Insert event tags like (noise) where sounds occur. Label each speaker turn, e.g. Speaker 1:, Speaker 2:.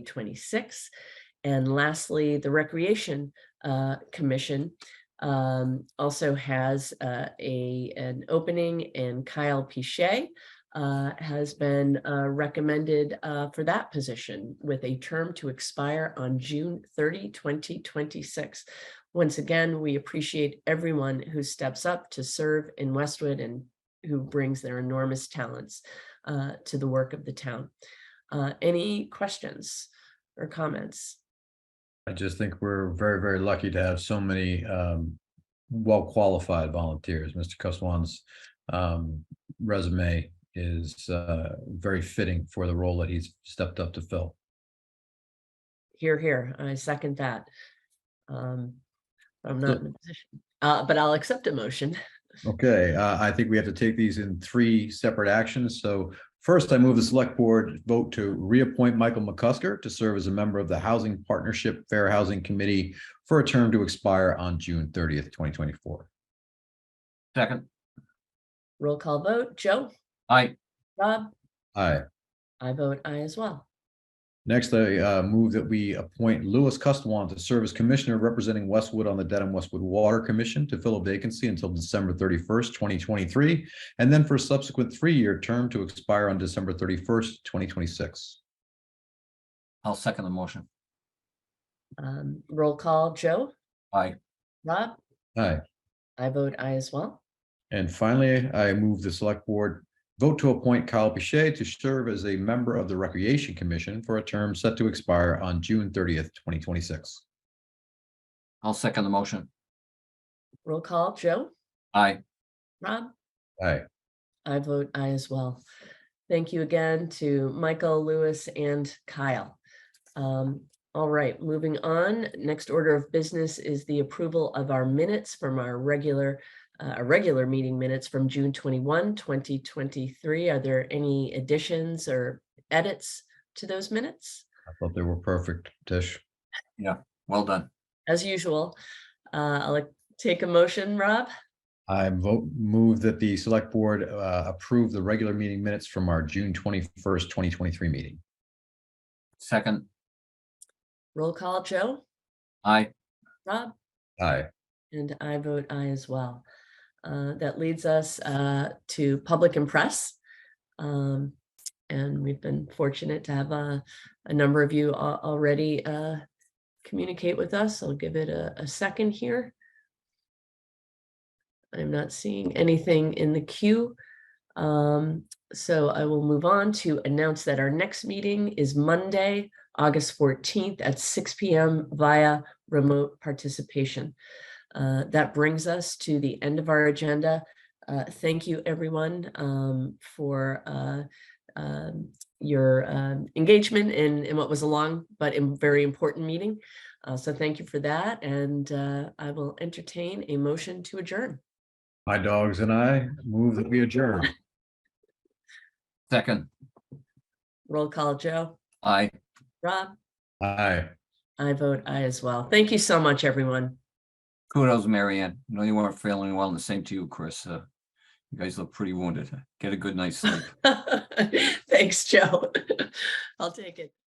Speaker 1: 2026. And lastly, the Recreation uh, Commission um, also has uh, a, an opening and Kyle Pichet uh, has been uh, recommended uh, for that position with a term to expire on June 30, 2026. Once again, we appreciate everyone who steps up to serve in Westwood and who brings their enormous talents uh, to the work of the town. Uh, Any questions or comments?
Speaker 2: I just think we're very, very lucky to have so many um well-qualified volunteers. Mr. Cuswan's um resume is uh very fitting for the role that he's stepped up to fill.
Speaker 1: Here, here, I second that. Um, I'm not in a position, uh, but I'll accept a motion. (laughs)
Speaker 2: Okay, uh, I think we have to take these in three separate actions. So first, I move the select board vote to reappoint Michael McCusker to serve as a member of the Housing Partnership Fair Housing Committee for a term to expire on June thirtieth, twenty twenty-four.
Speaker 3: Second,
Speaker 1: Roll call vote. Joe,
Speaker 3: aye,
Speaker 1: Rob,
Speaker 2: Aye.
Speaker 1: I vote aye as well.
Speaker 2: Next, I uh, move that we appoint Louis Custwan to serve as Commissioner representing Westwood on the Dedham Westwood Water Commission to fill a vacancy until December thirty-first, twenty twenty-three, and then for a subsequent three-year term to expire on December thirty-first, twenty twenty-six.
Speaker 3: I'll second the motion,
Speaker 1: Um, roll call, Joe,
Speaker 3: aye,
Speaker 1: Rob,
Speaker 2: Aye.
Speaker 1: I vote aye as well.
Speaker 2: And finally, I move the Select Board vote to appoint Kyle Pichet to serve as a member of the Recreation Commission for a term set to expire on June thirtieth, twenty twenty-six.
Speaker 3: I'll second the motion,
Speaker 1: Roll call, Joe,
Speaker 3: aye,
Speaker 1: Rob,
Speaker 2: Aye.
Speaker 1: I vote aye as well. Thank you again to Michael, Lewis, and Kyle. Um, All right, moving on. Next order of business is the approval of our minutes from our regular, uh, our regular meeting minutes from June 21, 2023. Are there any additions or edits to those minutes?
Speaker 2: I thought they were perfect, Tish.
Speaker 3: well done,
Speaker 1: As usual, uh, I'll take a motion, Rob.
Speaker 2: I vote, move that the select board uh, approve the regular meeting minutes from our June twenty-first, twenty twenty-three meeting.
Speaker 3: second,
Speaker 1: Roll call, Joe,
Speaker 3: aye,
Speaker 1: Rob?
Speaker 2: Aye.
Speaker 1: And I vote aye as well. Uh, That leads us uh, to public and press. Um, And we've been fortunate to have uh, a number of you al- already uh, communicate with us. I'll give it a a second here. I'm not seeing anything in the queue. Um, So I will move on to announce that our next meeting is Monday, August 14th at 6 PM via remote participation. Uh, that brings us to the end of our agenda. Uh, thank you, everyone, um, for uh, um, your um, engagement in, in what was a long but im- very important meeting. Uh, so thank you for that. And uh, I will entertain a motion to adjourn.
Speaker 2: My dogs and I move that we adjourn.
Speaker 3: second,
Speaker 1: Roll call, Joe.
Speaker 3: aye.
Speaker 1: Rob,
Speaker 2: Aye.
Speaker 1: I vote aye as well. Thank you so much, everyone. (laughs)
Speaker 3: Kudos, Marianne. I know you weren't feeling well, and the same to you, Chris. Uh, You guys look pretty wounded. Get a good night's sleep.
Speaker 1: Thanks, Joe. (laughs) I'll take it.